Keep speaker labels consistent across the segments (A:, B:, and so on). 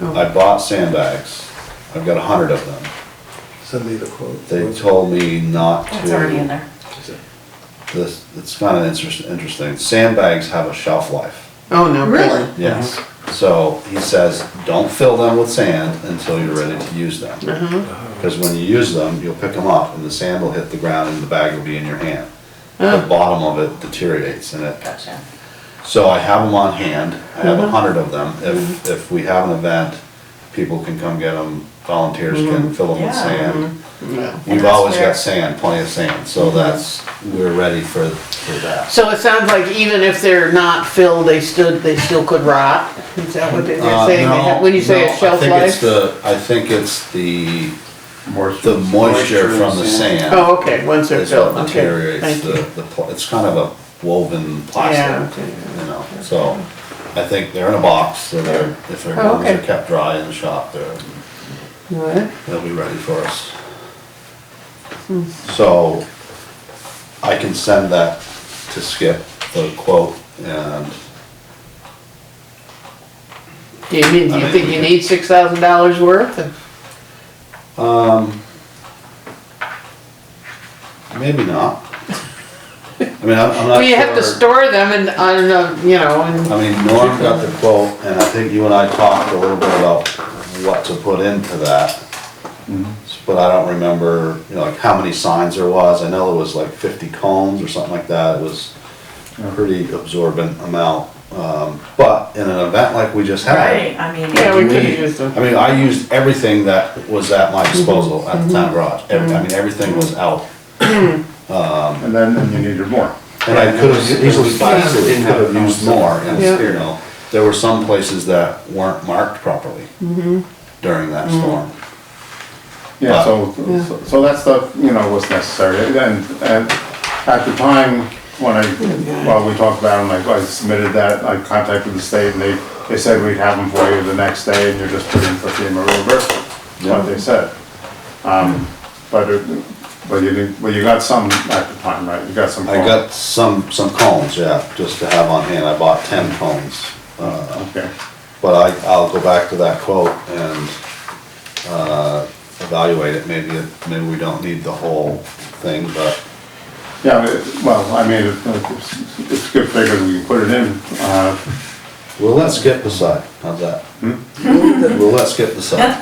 A: I bought sandbags, I've got a hundred of them.
B: Send me the quote.
A: They told me not to.
C: It's already in there.
A: This, it's kind of interesting, interesting. Sandbags have a shelf life.
D: Oh, no.
C: Really?
A: Yes. So he says, don't fill them with sand until you're ready to use them. Because when you use them, you'll pick them up and the sand will hit the ground and the bag will be in your hand. The bottom of it deteriorates and it,
C: Gotcha.
A: so I have them on hand. I have a hundred of them. If, if we have an event, people can come get them, volunteers can fill them with
C: Yeah.
A: sand.
D: No.
C: And
A: We've
C: that's
A: always
C: where-
A: got sand, plenty of sand, so that's, we're ready for, for that.
D: So it sounds like even if they're not filled, they stood, they still could rot? Is that what they're
A: Uh,
D: saying? They have- When you say
A: no,
D: a shelf
A: I think it's
D: life?
A: the, I think it's the,
E: Moisture.
A: the moisture from the sand
D: Oh, okay, once they're
A: is what
D: filled, okay,
A: deteriorates
D: thank
A: the,
D: you.
A: the, pl- it's kind of a woven
D: Yeah,
A: plastic,
D: okay.
A: you know, so. I think they're in a box, so they're, if their
D: Oh,
A: gums are
D: okay.
A: kept dry in the shop, they're,
D: Alright.
A: they'll be ready for us.
D: Hmm.
A: So, I can send that to Skip, the quote, and
D: Do you mean, do
A: I
D: you
A: mean,
D: think
A: we
D: you
A: could-
D: need six thousand dollars worth?
A: Um, maybe not. I mean, I'm, I'm not sure.
D: Well, you have to store them and, I don't know, you know, and,
A: I mean, Norm got the quote, and I think you and I talked a little bit about what to put into that. But I don't remember, you know, like how many signs there was. I know it was like fifty cones or something like that. It was a pretty absorbent amount. Um, but in an event like we just had,
C: Right, I mean,
D: yeah, we
A: we-
D: could have used them.
A: I mean, I used everything that was at my disposal at the town garage. Every- I mean, everything was out.
E: And then, and you needed more.
A: And I could have easily possibly
B: Didn't have
A: could have used more, and,
D: Yeah.
A: you know, there were some places that weren't marked properly during that storm.
E: Yeah, so, so- so that stuff, you know, was necessary. And, and at the time, when I, well, we talked about it, and I I submitted that, I contacted the state, and they, they said we'd have them for you the next day, and you're just putting for FEMA reimbursement, is what they said. Um, but, it- but you didn't, well, you got some at the time, right? You got some.
A: I got some, some cones, yeah, just to have on hand, I bought ten cones. uh,
E: Okay,
A: But I, I'll go back to that quote and, uh, evaluate it, maybe, it- maybe we don't need the whole thing, but,
E: yeah, it- well, I mean, it- it's, it's good figure, we can put it in, uh,
A: we'll let Skip decide, how's that? Hmm? We'll let Skip decide.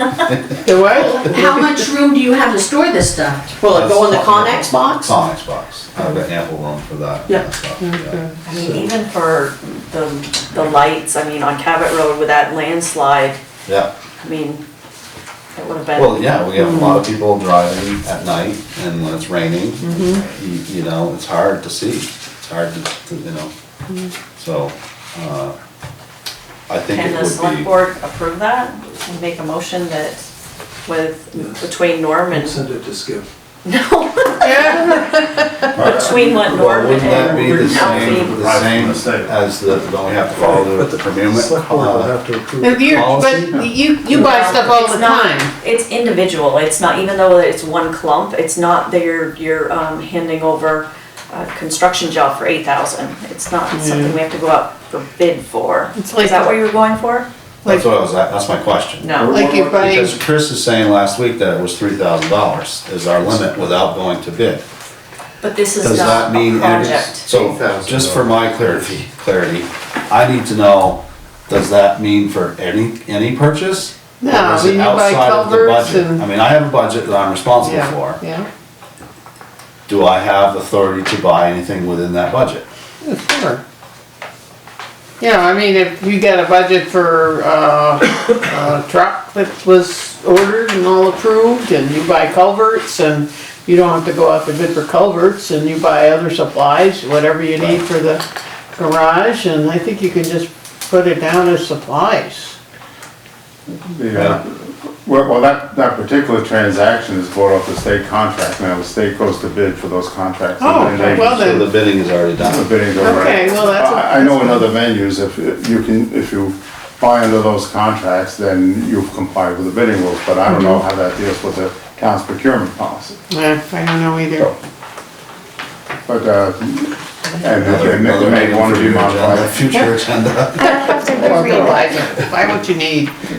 D: The what?
F: How much room do you have to store this stuff? Will it go in the Connex box?
A: Conex box, I've got ample room for that. kind of
F: Yeah.
A: stuff, Yeah.
C: I mean, even for the, the lights, I mean, on Cabot Road with that landslide,
A: Yeah.
C: I mean, it would have been.
A: Well, yeah, we have a lot of people driving at night and when it's raining, you, you know, it's hard to see. It's hard to, to, you know, so, uh, I think
C: Can
A: it
C: the
A: would
C: select
A: be.
C: board approve that and make a motion that with, between Norm and,
B: Send it to Skip.
C: no, between what
A: Well,
C: Norm
A: wouldn't that be the
C: and
A: same,
C: Alfie?
A: the same as the, don't we have to follow the procurement?
B: Select board will
A: uh,
B: have to approve.
D: But
B: it.
D: you, but
A: Policy?
D: you, you buy stuff all
C: It's
D: the
C: not-
D: time.
C: It's individual, it's not, even though it's one clump, it's not that you're, you're um, handing over a construction job for eight thousand. It's not something we have to go out for bid for. Is
D: It's like-
C: that what you were going for?
A: That's what I was, at- that's my question.
C: No.
D: Like you buy,
A: Because Chris is saying last week that it was three thousand dollars is our limit without going to bid.
C: But this
A: Does
C: is
A: that
C: not
A: mean,
C: a
A: it is-
C: project.
A: so, just for my clarity, clarity, I need to know, does that mean for any, any purchase? Or
D: No,
A: is it
D: you buy
A: outside of the
D: culverts
A: budget?
D: and-
A: I mean, I have a budget that I'm responsible
D: yeah,
A: for.
D: yeah,
A: Do I have authority to buy anything within that budget?
D: sure. Yeah, I mean, if you got a budget for, uh, a truck that was ordered and all approved, and you buy culverts, and you don't have to go out to bid for culverts, and you buy other supplies, whatever you need for the garage, and I think you can just put it down as supplies.
E: the, uh, Well, well, that, that particular transaction is bought off the state contract, now the state goes to bid for those contracts. and
D: Oh,
E: then they-
D: well
A: So
D: then-
A: the bidding is already
E: The
A: done.
E: bidding's over.
D: Okay, well, that's a-
E: I I know in other venues, if you can, if you buy under those contracts, then you've complied with the bidding rules, but I don't know
D: Mm-hmm.
E: how that deals with the town's procurement policy.
D: Yeah, I don't know either.
E: But, uh,
A: Another-
E: and they may-
A: another
E: they may
A: item
E: want
A: for
E: to be
A: your agenda,
E: modified.
A: Future agenda.
D: Buy what you need.